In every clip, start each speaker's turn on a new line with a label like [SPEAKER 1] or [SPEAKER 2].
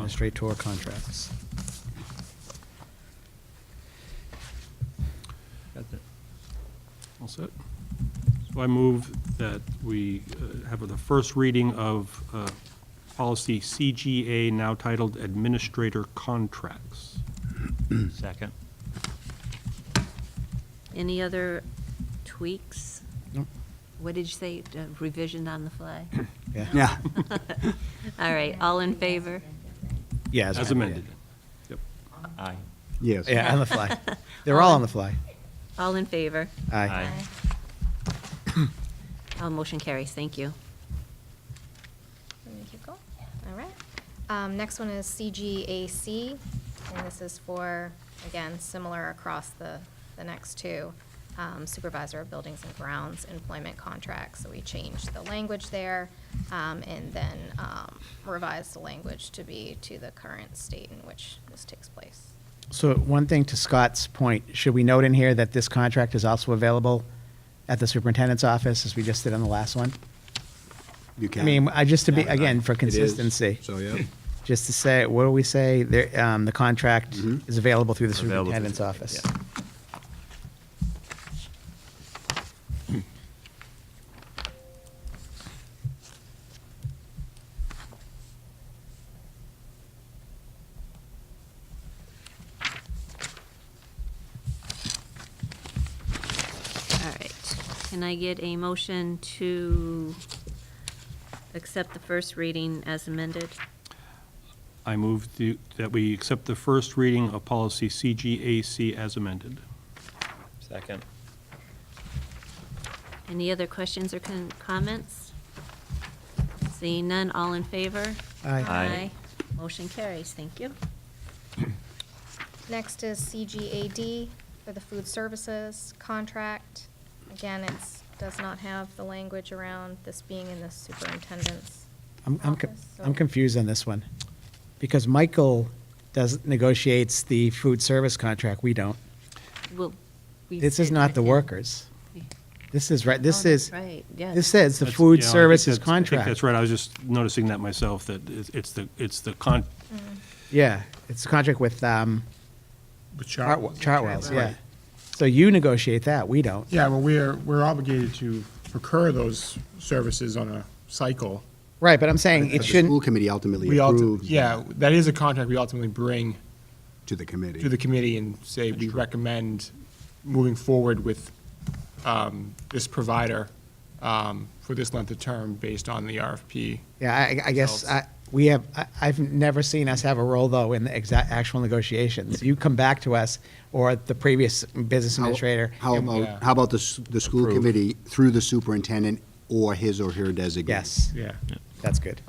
[SPEAKER 1] Administrator contracts.
[SPEAKER 2] That's it. All set. So I move that we uh, have the first reading of uh, policy CGA, now titled Administrator Contracts.
[SPEAKER 3] Second.
[SPEAKER 4] Any other tweaks?
[SPEAKER 1] No.
[SPEAKER 4] What did you say, uh, revision on the fly?
[SPEAKER 1] Yeah. Yeah.
[SPEAKER 4] All right, all in favor?
[SPEAKER 1] Yeah.
[SPEAKER 2] As amended. Yep.
[SPEAKER 3] Aye.
[SPEAKER 5] Yes.
[SPEAKER 1] Yeah, on the fly. They're all on the fly.
[SPEAKER 4] All in favor?
[SPEAKER 1] Aye.
[SPEAKER 4] All Oh, motion carries, thank you.
[SPEAKER 6] Let me keep going. All right. Um, next one is CGAC, and this is for, again, similar across the, the next two. um, Supervisor of Buildings and Grounds Employment Contracts, so we changed the language there, um, and then, um, revised the language to be to the current state in which this takes place.
[SPEAKER 1] So one thing to Scott's point, should we note in here that this contract is also available at the superintendent's office, as we just did on the last one?
[SPEAKER 5] You can.
[SPEAKER 1] I mean, I, just to be,
[SPEAKER 5] Yeah.
[SPEAKER 1] again, for
[SPEAKER 5] It is.
[SPEAKER 1] consistency,
[SPEAKER 5] So, yeah.
[SPEAKER 1] just to say, what do we say? There, um, the contract
[SPEAKER 5] Mhm.
[SPEAKER 1] is Mm-hmm. available through the
[SPEAKER 3] Available through-
[SPEAKER 1] superintendent's office.
[SPEAKER 3] yeah.
[SPEAKER 4] All right. Can I get a motion to accept the first reading as amended?
[SPEAKER 2] I move the- that we accept the first reading of policy CGAC as amended.
[SPEAKER 3] Second.
[SPEAKER 4] Any other questions or con- comments? Seeing none, all in favor?
[SPEAKER 1] Aye.
[SPEAKER 3] Aye.
[SPEAKER 4] Motion carries, thank you.
[SPEAKER 6] Next is CGAD for the food services contract. Again, it's, does not have the language around this being in the superintendent's
[SPEAKER 1] I'm, I'm, co-
[SPEAKER 6] office, so-
[SPEAKER 1] I'm confused on this one, because Michael does, negotiates the food service contract, we don't.
[SPEAKER 4] Well, we
[SPEAKER 1] This is
[SPEAKER 4] said
[SPEAKER 1] not the
[SPEAKER 4] yeah.
[SPEAKER 1] workers. This is, right. this
[SPEAKER 4] Oh, that's
[SPEAKER 1] is,
[SPEAKER 4] Right, yeah.
[SPEAKER 1] this says the
[SPEAKER 2] That's-
[SPEAKER 1] food
[SPEAKER 2] yeah, I think
[SPEAKER 1] services
[SPEAKER 2] that's- I think
[SPEAKER 1] contract.
[SPEAKER 2] that's right. I was just noticing that myself, that it's it's the, it's the con,
[SPEAKER 1] Yeah, it's a contract with, um, Chartwell- Chartwell's, yeah.
[SPEAKER 7] Right.
[SPEAKER 1] So you negotiate that, we don't.
[SPEAKER 7] Yeah, well, we're, we're obligated to procure those services on a cycle.
[SPEAKER 1] Right, but I'm saying
[SPEAKER 5] But
[SPEAKER 1] it
[SPEAKER 5] the school
[SPEAKER 1] shouldn't,
[SPEAKER 5] committee ultimately
[SPEAKER 7] Mm. We ulti-
[SPEAKER 5] approves
[SPEAKER 7] yeah, that is a contract we ultimately bring
[SPEAKER 5] to the committee.
[SPEAKER 7] to the committee and say we recommend moving forward with um, this provider um, for this length of term based on the RFP.
[SPEAKER 1] yeah, I, I guess,
[SPEAKER 7] Results.
[SPEAKER 1] I, we have, I, I've never seen us have a role though in the exact, actual negotiations. You come back to us or the previous business
[SPEAKER 5] How-
[SPEAKER 1] administrator.
[SPEAKER 5] How
[SPEAKER 1] and-
[SPEAKER 7] Yeah.
[SPEAKER 5] about, how about the, s- the school committee through the superintendent or his or her designee?
[SPEAKER 1] Yes,
[SPEAKER 7] Yeah.
[SPEAKER 1] that's good.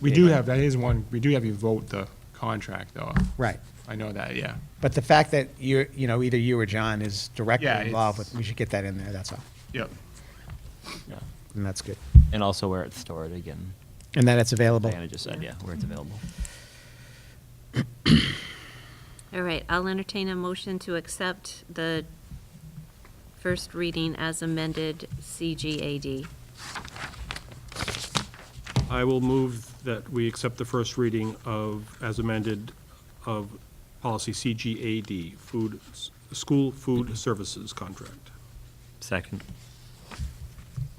[SPEAKER 7] We do have, that is one, we do have you vote the contract, though.
[SPEAKER 1] Right.
[SPEAKER 7] I know that, yeah.
[SPEAKER 1] But the fact that you're, you know, either you or John is directly
[SPEAKER 7] Yeah,
[SPEAKER 1] involved
[SPEAKER 7] it's-
[SPEAKER 1] with, we should get that in there, that's all.
[SPEAKER 7] Yep. Yeah.
[SPEAKER 1] And that's good.
[SPEAKER 3] And also where it's stored again.
[SPEAKER 1] And that it's available.
[SPEAKER 3] Diana just said, yeah, where it's available.
[SPEAKER 4] All right, I'll entertain a motion to accept the first reading as amended CGAD.
[SPEAKER 2] I will move that we accept the first reading of, as amended, of policy CGAD, food, s- school food services contract.
[SPEAKER 3] Second.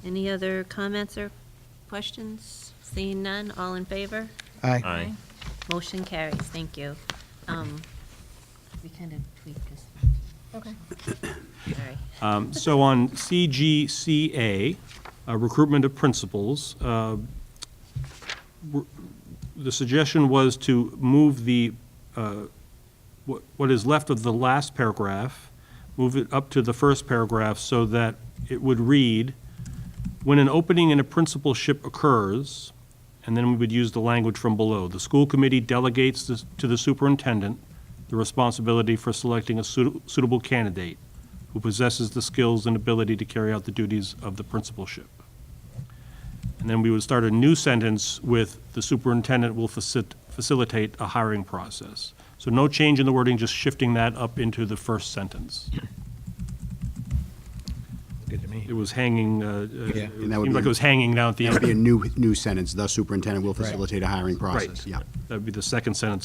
[SPEAKER 4] Any other comments or questions? Seeing none, all in favor?
[SPEAKER 1] Aye.
[SPEAKER 3] Aye.
[SPEAKER 4] Motion carries, thank you. Um, We kind of tweaked this,
[SPEAKER 6] Okay.
[SPEAKER 4] sorry.
[SPEAKER 2] Um, So on CGCA, uh, recruitment of principals, uh, we're- the suggestion was to move the, uh, what what is left of the last paragraph, move it up to the first paragraph so that it would read, "When an opening in a principalship occurs," and then we would use the language from below, "The school committee delegates this- to the superintendent the responsibility for selecting a suit- suitable candidate who possesses the skills and ability to carry out the duties of the principalship." And then we would start a new sentence with, "The superintendent will facil- facilitate a hiring process." So no change in the wording, just shifting that up into the first sentence.
[SPEAKER 8] did to me.
[SPEAKER 2] It was hanging, uh,
[SPEAKER 8] Yeah.
[SPEAKER 2] uh, it
[SPEAKER 5] And that would
[SPEAKER 2] seemed like
[SPEAKER 5] be-
[SPEAKER 2] it was hanging down at the
[SPEAKER 5] That would be a
[SPEAKER 2] end.
[SPEAKER 5] new, new sentence, the superintendent will
[SPEAKER 8] Right.
[SPEAKER 5] facilitate a hiring process.
[SPEAKER 2] Right.
[SPEAKER 5] Yeah.
[SPEAKER 2] That'd be the second sentence